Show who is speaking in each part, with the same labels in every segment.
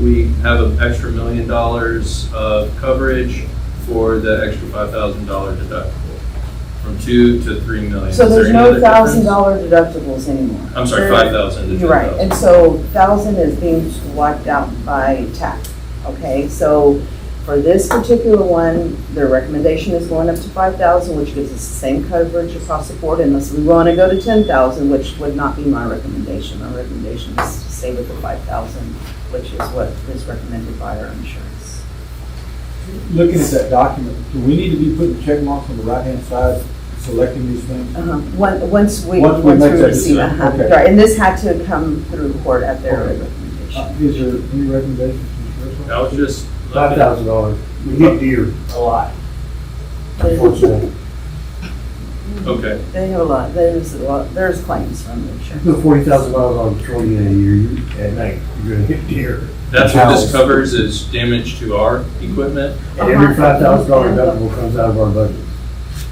Speaker 1: we have an extra million dollars of coverage for the extra five thousand dollar deductible, from two to three million.
Speaker 2: So
Speaker 1: Is there
Speaker 2: there's
Speaker 1: any
Speaker 2: no
Speaker 1: other
Speaker 2: thousand
Speaker 1: difference?
Speaker 2: dollar deductibles anymore.
Speaker 1: I'm sorry,
Speaker 2: There-
Speaker 1: five thousand to ten
Speaker 2: You're right,
Speaker 1: thousand.
Speaker 2: and so thousand is being wiped out by TAC, okay? So for this particular one, their recommendation is going up to five thousand, which gives us the same coverage across the board unless we want to go to ten thousand, which would not be my recommendation. My recommendation is to stay with the five thousand, which is what is recommended by our insurance.
Speaker 3: Looking at that document, do we need to be putting check marks on the right-hand side, selecting these things?
Speaker 2: Uh-huh. One- Once we, once
Speaker 3: Once we
Speaker 2: we
Speaker 3: make that
Speaker 2: receive,
Speaker 3: decision,
Speaker 2: uh-huh.
Speaker 3: okay.
Speaker 2: right, and this had to come through court at their
Speaker 3: Okay.
Speaker 2: recommendation.
Speaker 3: Uh, Is there any recommendations from the
Speaker 1: I was just.
Speaker 4: Five thousand dollars, we hit deer a lot, unfortunately.
Speaker 1: Okay,
Speaker 2: They have a lot, there's a lot, there's claims from the
Speaker 4: You
Speaker 2: insurance.
Speaker 4: put forty thousand miles on patrol unit a year, you, at night, you're gonna hit deer.
Speaker 1: that's what this
Speaker 4: Cows.
Speaker 1: covers is damage to our equipment.
Speaker 4: And every five thousand dollar deductible comes out of our budget.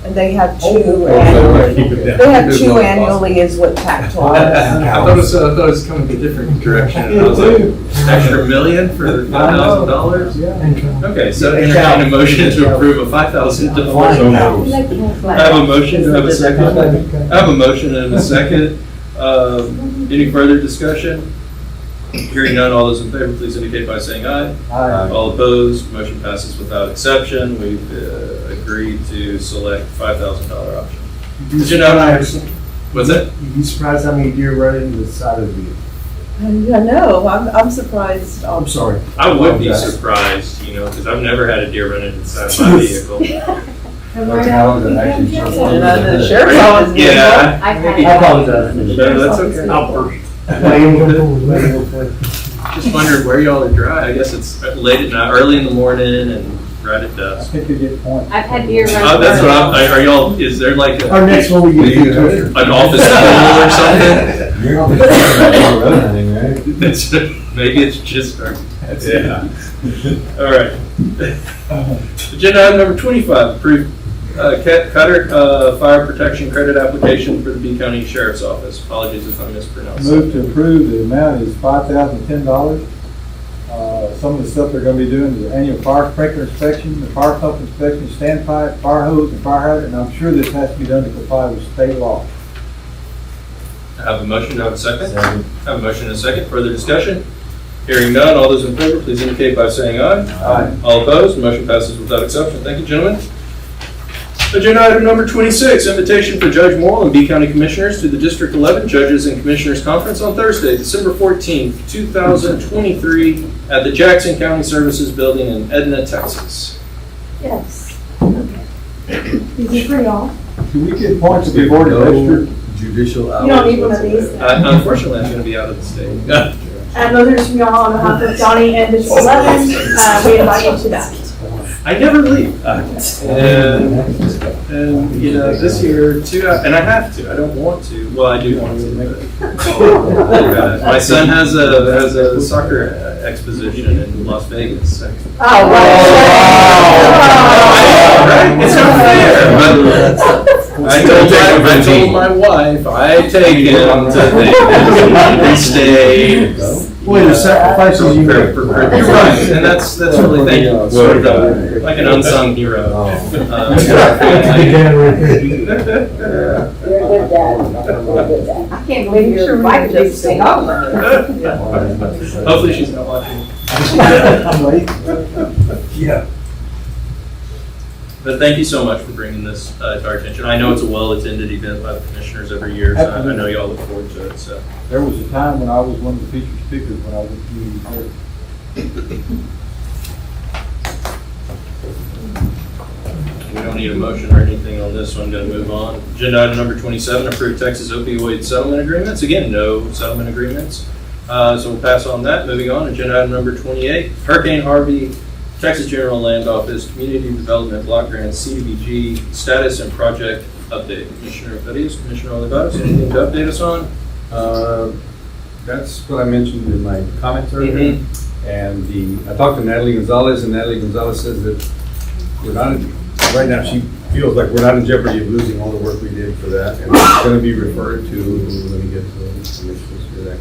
Speaker 2: And they have
Speaker 4: Oh,
Speaker 2: two
Speaker 4: okay.
Speaker 2: annually.
Speaker 4: Keep it down.
Speaker 2: They have two annually is what TAC told us.
Speaker 5: I thought it was, I thought it was coming a different direction.
Speaker 1: And I was like, an extra million for five thousand dollars?
Speaker 3: Yeah.
Speaker 1: Okay, so entertain a motion to approve a five thousand
Speaker 4: Flying
Speaker 1: dollar.
Speaker 4: cows.
Speaker 1: I have a motion, do I have a second? I have a motion and a second. Um, Any further discussion? Hearing none, all those in favor, please indicate by saying aye.
Speaker 3: Aye.
Speaker 1: All opposed, motion passes without exception. We've uh, agreed to select $5,000 option. Did you know- What's that?
Speaker 4: You'd be surprised how many deer run into the side of the vehicle.
Speaker 2: I know, I'm, I'm surprised.
Speaker 4: I'm sorry.
Speaker 1: I would be
Speaker 4: Okay.
Speaker 1: surprised, you know, because I've never had a deer run inside my vehicle.
Speaker 2: And uh, the sheriff's
Speaker 1: Right?
Speaker 2: office. did that.
Speaker 1: Yeah.
Speaker 4: I apologize.
Speaker 1: No, that's okay.
Speaker 4: I'll worry. Well,
Speaker 1: Just wondered where y'all are dry. I guess it's late at night, early in the morning and right at
Speaker 3: I
Speaker 1: dusk.
Speaker 3: think you get points.
Speaker 6: I've had deer run.
Speaker 1: Uh, That's what I'm, are- are y'all, is there like a-
Speaker 4: Our next one, we get to.
Speaker 1: an office pool or something? That's, maybe it's just our. Yeah. All right. Agenda item number twenty-five, approve uh, Cat Cutter uh, Fire Protection Credit Application for the B County Sheriff's Office. Apologies if I mispronounced. that.
Speaker 3: Move to approve, the amount is five thousand ten dollars. Uh, some of the stuff they're gonna be doing is annual fire sprinkler inspection, the fire pump inspection, standpipe, fire hose, and fire hydrant, and I'm sure this has to be done to comply with state law.
Speaker 1: I Have a motion, I have a second? I Have a motion and a second, further discussion? Hearing none, all those in favor, please indicate by saying aye.
Speaker 3: Aye.
Speaker 1: All opposed, motion passes without exception. Thank you, gentlemen. Agenda item number 26, invitation for Judge Morrill and B County Commissioners to the District 11 Judges and Commissioners Conference on Thursday, December 14th, 2023, at the Jackson County Services Building in Edna, Texas.
Speaker 6: Yes. Is it for y'all?
Speaker 3: Do we get points if we board registered?
Speaker 5: Judicial
Speaker 6: You don't need one of these.
Speaker 1: Uh, Unfortunately, I'm going to be out of the state.
Speaker 6: Uh, letters from y'all on behalf of Donnie and District Eleven, uh, we invite you to that.
Speaker 1: I never leave. Uh, And, and, you know, this year, too, and I have to, I don't want to. Well, I do want to, but- My son has a, has a soccer exposition in Las Vegas. Right?
Speaker 2: Oh, wow.
Speaker 6: Oh,
Speaker 1: Right? It's not fair, but I told my, I told my wife, I take him to Vegas, he stayed.
Speaker 4: the sacrifices you
Speaker 1: You're
Speaker 4: make.
Speaker 1: right, and that's, that's really, thank you, sort of, the- like an unsung hero. Um, to our family.
Speaker 2: You're a good dad.
Speaker 6: I can't believe your wife just stayed over.
Speaker 1: Hopefully she's not watching.
Speaker 3: I'm late.
Speaker 4: Yeah.
Speaker 1: But thank you so much for bringing this uh, to our attention. I know it's a well-attended event by the commissioners every year, so I- I know y'all look forward to it, so.
Speaker 3: There was a time when I was one of the featured speakers when I was a community here.
Speaker 1: We don't need a motion or anything on this, so I'm going to move on. Agenda item number 27, approve Texas opioid settlement agreements. Again, no settlement agreements. Uh, So we'll pass on that. Moving on, agenda item number 28, Hurricane Harvey, Texas General Land Office Community Development Block Grant, CDBG, status and project update. Commissioner Fedias, Commissioner Olivatos, anything to update us on?
Speaker 7: Uh, That's what I mentioned in my comments earlier. And the, I talked to Natalie Gonzalez, and Natalie Gonzalez says that we're not, in- right now, she feels like we're not in jeopardy of losing all the work we did for that. And it's gonna be referred to, let me get to the commissioners for that.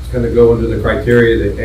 Speaker 7: It's gonna go under the criteria that